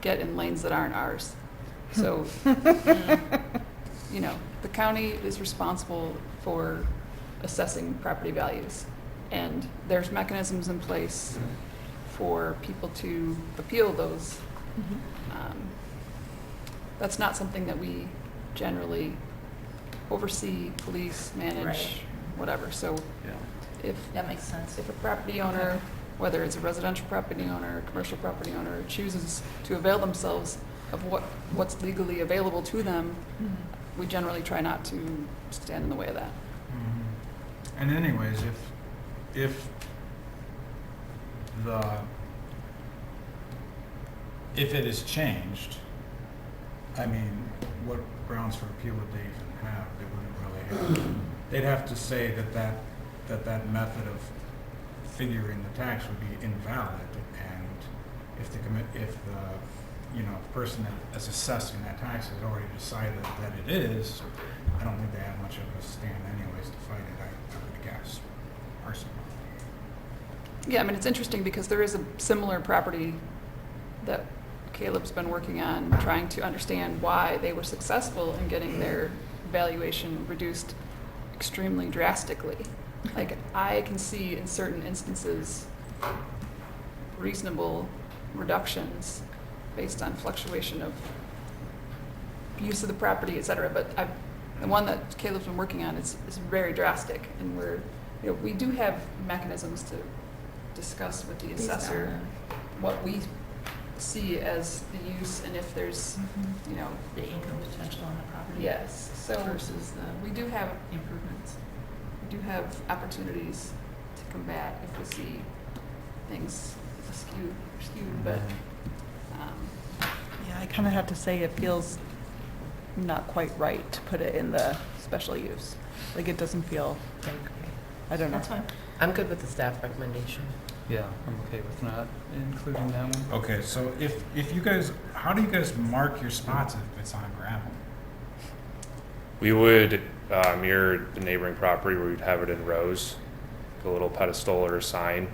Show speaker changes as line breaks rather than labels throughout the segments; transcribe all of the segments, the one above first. get in lanes that aren't ours. So, you know, the county is responsible for assessing property values. And there's mechanisms in place for people to appeal those. Um, That's not something that we generally oversee, police, manage,
Right.
whatever. So
Yeah.
if
That makes sense.
if a property owner, whether it's a residential property owner, a commercial property owner, chooses to avail themselves of what, what's legally available to them, we generally try not to stand in the way of that.
Mhm. And anyways, if, if the, if it is changed, I mean, what grounds for appeal would they even have? They wouldn't really have. They'd have to say that that, that that method of figuring the tax would be invalid. And if the commit, if the, you know, person that is assessing that tax has already decided that it is, I don't think they have much of a stand anyways to fight it, I, I would guess, personally.
Yeah, I mean, it's interesting because there is a similar property that Caleb's been working on, trying to understand why they were successful in getting their valuation reduced extremely drastically. Like, I can see in certain instances reasonable reductions based on fluctuation of use of the property, et cetera, but I, the one that Caleb's been working on is, is very drastic, and we're, you know, we do have mechanisms to discuss with the
Based on
assessor what we see as the use and if there's,
Mhm.
Mm-hmm.
you know,
The income potential on the property.
yes, so uh,
Versus
we
the
do have,
improvements.
we do have opportunities to combat if we see things skewed, skewed, but, um,
Yeah, I kind of have to say it feels not quite right to put it in the special use. Like, it doesn't feel, I don't know.
That's fine.
I'm good with the staff recommendation.
Yeah, I'm okay with not including that one.
Okay, so if, if you guys, how do you guys mark your spots if it's on gravel?
We would uh, mirror the neighboring property where we'd have it in rows, a little pedestal or a sign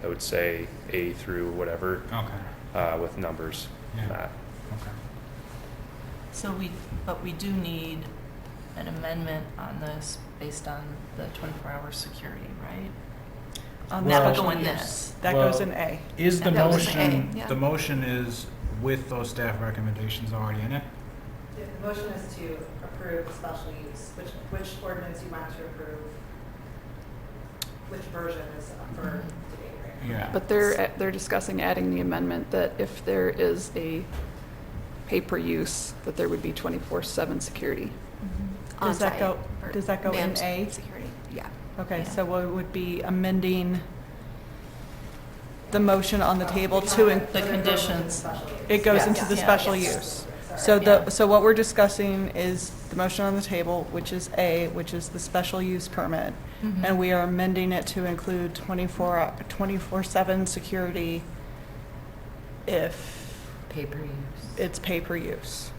that would say A through whatever
Okay,
uh, with numbers. on
Yeah.
Uh,
that.
okay.
So we, but we do need an amendment on this based on the 24-hour security, right? Um,
On the
That would
Well-
go in
special use.
this.
That
Well-
goes in A.
Is the
That was A,
motion,
yeah.
the motion is with those staff recommendations already in it?
The motion is to approve special use, which, which ordinance you want to approve, which version is up for debate right now.
Yeah.
But they're, they're discussing adding the amendment that if there is a pay-per-use, that there would be 24/7 security.
Mm-hmm.
Does that go, does that go in A?
Security, yeah.
Okay,
Yeah.
so what would be amending the motion on the table
We
to,
want
in-
The
approve it
conditions.
with special use.
it goes
Yeah.
into the
Yeah.
special
Yes.
use.
Sorry.
So
Yeah.
the, so what we're discussing is the motion on the table, which is A, which is the special use permit.
Mhm.
And we are amending it to include 24, 24/7 security if
Paper use.
it's pay-per-use.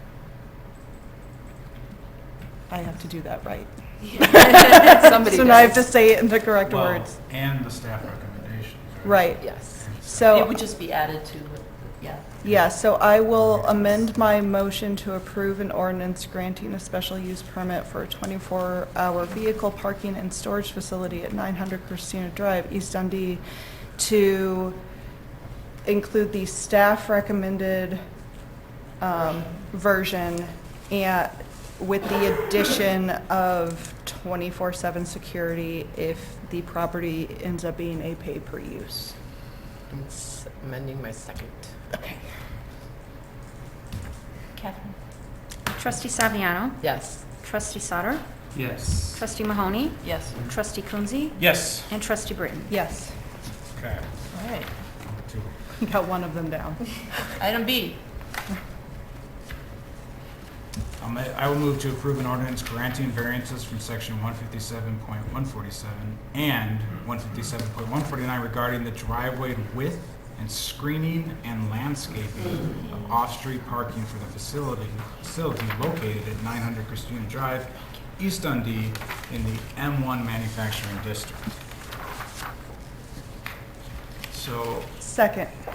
I have to do that right.
Somebody
So now I have to
does.
say it in the correct
Well,
words.
And the staff recommendations.
Right.
Yes.
It
So,
would just be added to, what- yeah.
yeah, so I will amend my motion to approve an ordinance granting a special use permit for a 24-hour vehicle parking and storage facility at 900 Christina Drive, East Dundee, to include the staff recommended um, version and with the addition of 24/7 security if the property ends up being a pay-per-use.
I'm s- amending my second.
Okay.
Catherine?
Trustee Saviano.
Yes.
Trustee Sauter.
Yes.
Trustee Mahoney.
Yes.
Trustee Coonsey.
Yes.
And Trustee Britton.
Yes,
Okay.
All right.
Two.
got one of them down.
Item B,
I'll ma- Um, I will move to approve an ordinance granting variances from section one fifty-seven point one forty-seven and one fifty-seven point one forty-nine regarding the driveway width and screening and landscaping of off-street parking for the facility, facility located at nine hundred Christina Drive, East Dundee, in the M one manufacturing district. So,
Second.